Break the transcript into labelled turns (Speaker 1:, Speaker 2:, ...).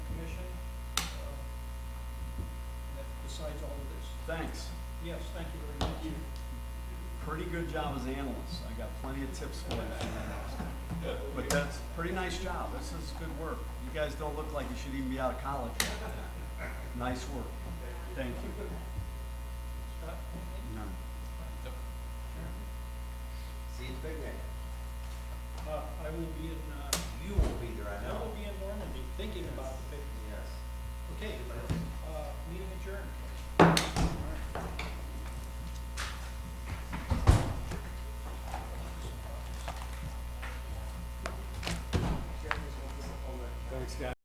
Speaker 1: decides Uh, all of this.
Speaker 2: Thanks.
Speaker 1: Yes, thank you very much.
Speaker 2: Pretty good job as analysts. I got plenty of tips for you. if you want to ask. But that's a pretty nice job. This is good work. You guys don't look like you should even be out of college. yet. Nice work. Thank you.
Speaker 1: Scott?
Speaker 2: No.
Speaker 3: See you big man.
Speaker 1: Uh, I will be in, uh,
Speaker 3: You will be there, I
Speaker 1: I
Speaker 3: know.
Speaker 1: will be in Normandy thinking about the big,
Speaker 3: Yes.
Speaker 1: okay, uh, meeting adjourned.